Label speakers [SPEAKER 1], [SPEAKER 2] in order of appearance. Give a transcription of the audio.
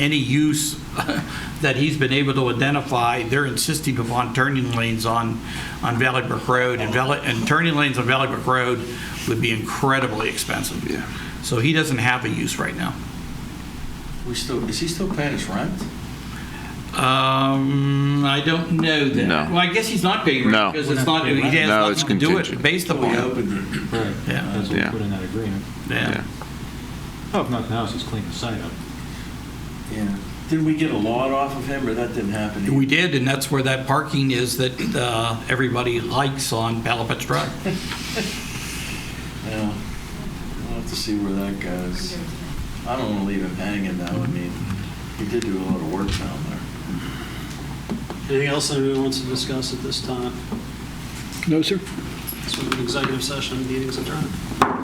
[SPEAKER 1] any use that he's been able to identify, they're insisting upon turning lanes on, on Valley Brook Road, and Valley, and turning lanes on Valley Brook Road would be incredibly expensive.
[SPEAKER 2] Yeah.
[SPEAKER 1] So he doesn't have a use right now.
[SPEAKER 3] We still, is he still paying his rent?
[SPEAKER 1] Um, I don't know that.
[SPEAKER 2] No.
[SPEAKER 1] Well, I guess he's not paying rent.
[SPEAKER 2] No.
[SPEAKER 1] Because it's not, he has
[SPEAKER 2] No, it's
[SPEAKER 1] nothing to do it
[SPEAKER 2] contingent.
[SPEAKER 1] based
[SPEAKER 3] We
[SPEAKER 1] upon.
[SPEAKER 3] opened it.
[SPEAKER 4] Right.
[SPEAKER 1] Yeah.
[SPEAKER 4] That's what we
[SPEAKER 2] Yeah.
[SPEAKER 4] put in that agreement.
[SPEAKER 1] Yeah.
[SPEAKER 4] Oh, if nothing else, just clean the site up.
[SPEAKER 3] Yeah. Didn't we get a lot off of him, or that didn't happen? either?
[SPEAKER 1] We did, and that's where that parking is that uh, everybody likes on Palapet Drive.
[SPEAKER 3] Yeah. We'll have to see where that goes. I don't want to leave him hanging now. I mean, he did do a lot of work down there.
[SPEAKER 5] Anything else anyone wants to discuss at this time?
[SPEAKER 6] No, sir.
[SPEAKER 5] Sort of an executive session, meetings adjourned.